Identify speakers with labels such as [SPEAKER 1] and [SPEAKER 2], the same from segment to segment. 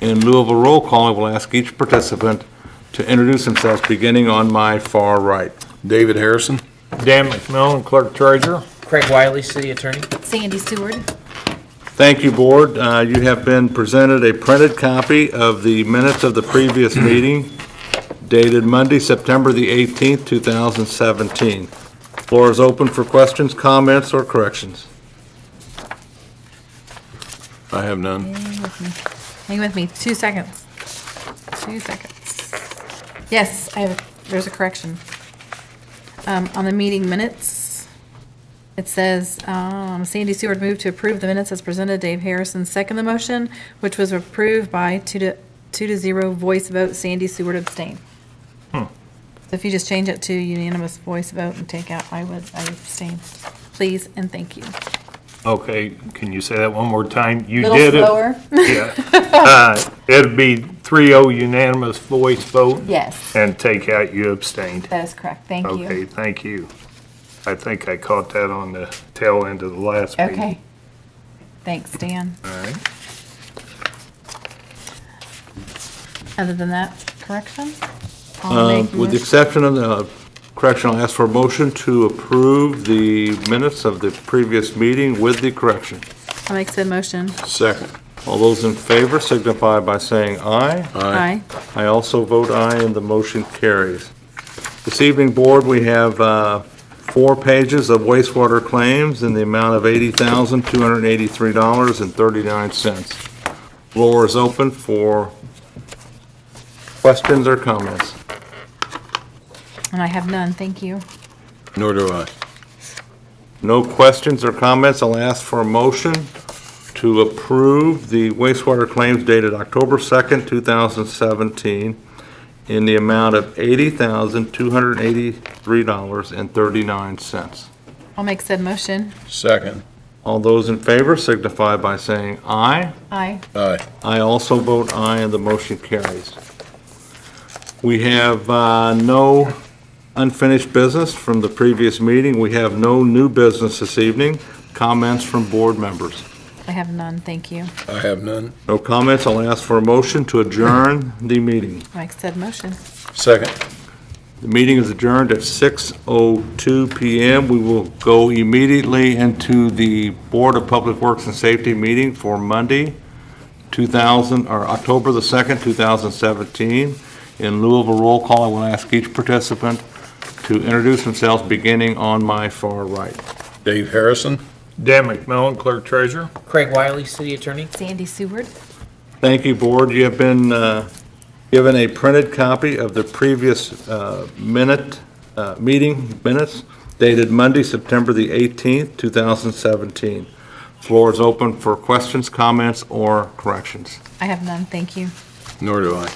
[SPEAKER 1] In lieu of a roll call, I will ask each participant to introduce themselves, beginning on my far right.
[SPEAKER 2] David Harrison.
[SPEAKER 3] Dan McMillan, Clerk Treasurer.
[SPEAKER 4] Craig Wiley, City Attorney.
[SPEAKER 5] Sandy Seward.
[SPEAKER 1] Thank you, Board. Uh, You have been presented a printed copy of the minutes of the previous meeting dated Monday, September the 18th, 2017. Floor is open for questions, comments, or corrections.
[SPEAKER 2] I have none.
[SPEAKER 5] Hang with me, two seconds. Two seconds. Yes, I have, there's a correction. Um, on the meeting minutes, it says, um, Sandy Seward moved to approve the minutes as presented. Dave Harrison seconded the motion, which was approved by two to, two to zero voice vote. Sandy Seward abstained.
[SPEAKER 3] Hmm.
[SPEAKER 5] So if you just change it to unanimous voice vote and take out, I would, I abstain. Please and thank you.
[SPEAKER 3] Okay, can you say that one more time? You
[SPEAKER 5] Little
[SPEAKER 3] did it.
[SPEAKER 5] slower?
[SPEAKER 3] Yeah. Uh, It'd be 3-0 unanimous voice vote
[SPEAKER 5] Yes,
[SPEAKER 3] and take out you abstained.
[SPEAKER 5] that is correct. Thank you.
[SPEAKER 3] Okay, thank you. I think I caught that on the tail end of the last meeting.
[SPEAKER 5] Okay. Thanks, Dan.
[SPEAKER 3] All right.
[SPEAKER 5] Other than that, correction? I'll
[SPEAKER 1] Um,
[SPEAKER 5] make
[SPEAKER 1] With the
[SPEAKER 5] motion-
[SPEAKER 1] exception of the correction, I'll ask for a motion to approve the minutes of the previous meeting with the correction.
[SPEAKER 5] I'll make said motion.
[SPEAKER 2] Second.
[SPEAKER 1] All those in favor signify by saying aye.
[SPEAKER 5] Aye.
[SPEAKER 1] I also vote aye, and the motion carries. This evening, Board, we have uh, four pages of wastewater claims in the amount of $80,283.39. Floor is open for questions or comments.
[SPEAKER 5] And I have none, thank you.
[SPEAKER 2] Nor do I.
[SPEAKER 1] No questions or comments, I'll ask for a motion to approve the wastewater claims dated October 2nd, 2017, in the amount of $80,283.39.
[SPEAKER 5] I'll make said motion.
[SPEAKER 2] Second.
[SPEAKER 1] All those in favor signify by saying aye.
[SPEAKER 5] Aye.
[SPEAKER 2] Aye.
[SPEAKER 1] I also vote aye, and the motion carries. We have uh, no unfinished business from the previous meeting. We have no new business this evening. Comments from board members?
[SPEAKER 5] I have none, thank you.
[SPEAKER 2] I have none.
[SPEAKER 1] No comments, I'll ask for a motion to adjourn the meeting.
[SPEAKER 5] I'll make said motion.
[SPEAKER 2] Second.
[SPEAKER 1] The meeting is adjourned at 6:02 PM. We will go immediately into the Board of Public Works and Safety meeting for Monday, 2000, or October the 2nd, 2017. In lieu of a roll call, I will ask each participant to introduce themselves, beginning on my far right.
[SPEAKER 2] Dave Harrison.
[SPEAKER 3] Dan McMillan, Clerk Treasurer.
[SPEAKER 4] Craig Wiley, City Attorney.
[SPEAKER 5] Sandy Seward.
[SPEAKER 1] Thank you, Board. You have been uh, given a printed copy of the previous uh, minute, uh, meeting minutes dated Monday, September the 18th, 2017. Floor is open for questions, comments, or corrections.
[SPEAKER 5] I have none, thank you.
[SPEAKER 2] Nor do I.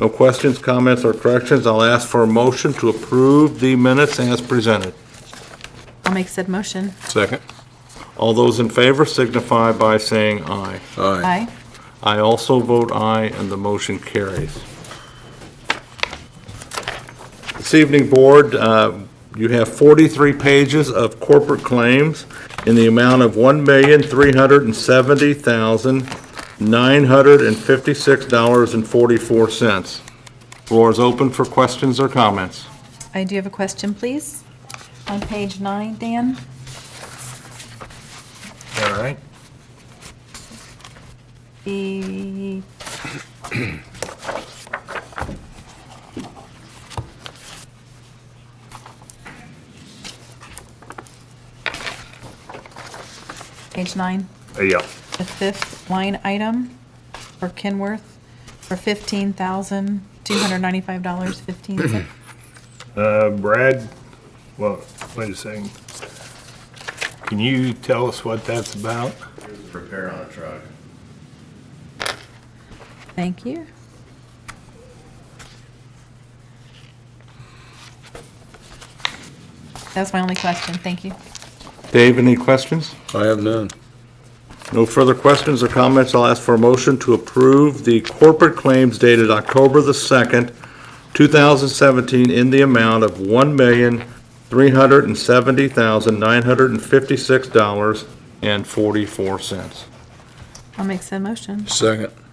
[SPEAKER 1] No questions, comments, or corrections. I'll ask for a motion to approve the minutes as presented.
[SPEAKER 5] I'll make said motion.
[SPEAKER 2] Second.
[SPEAKER 1] All those in favor signify by saying aye.
[SPEAKER 5] Aye.
[SPEAKER 2] Aye.
[SPEAKER 1] I also vote aye, and the motion carries. This evening, Board, uh, you have 43 pages of corporate claims in the amount of $1,370,956.44. Floor is open for questions or comments.
[SPEAKER 5] I do have a question, please. On page nine, Dan,
[SPEAKER 3] All right.
[SPEAKER 5] the page nine.
[SPEAKER 3] Uh, Yeah.
[SPEAKER 5] the fifth line item for Kenworth for fifteen thousand, two hundred ninety-five dollars, fifteen cents.
[SPEAKER 3] Uh, Brad, well, wait a second. Can you tell us what that's about?
[SPEAKER 6] repair on a truck.
[SPEAKER 5] Thank you. That's my only question. Thank you.
[SPEAKER 1] Dave, any questions?
[SPEAKER 2] I have none.
[SPEAKER 1] No further questions or comments. I'll ask for a motion to approve the corporate claims dated October the 2nd, 2017, in the amount of $1,370,956.44.
[SPEAKER 5] I'll make said motion.
[SPEAKER 2] Second.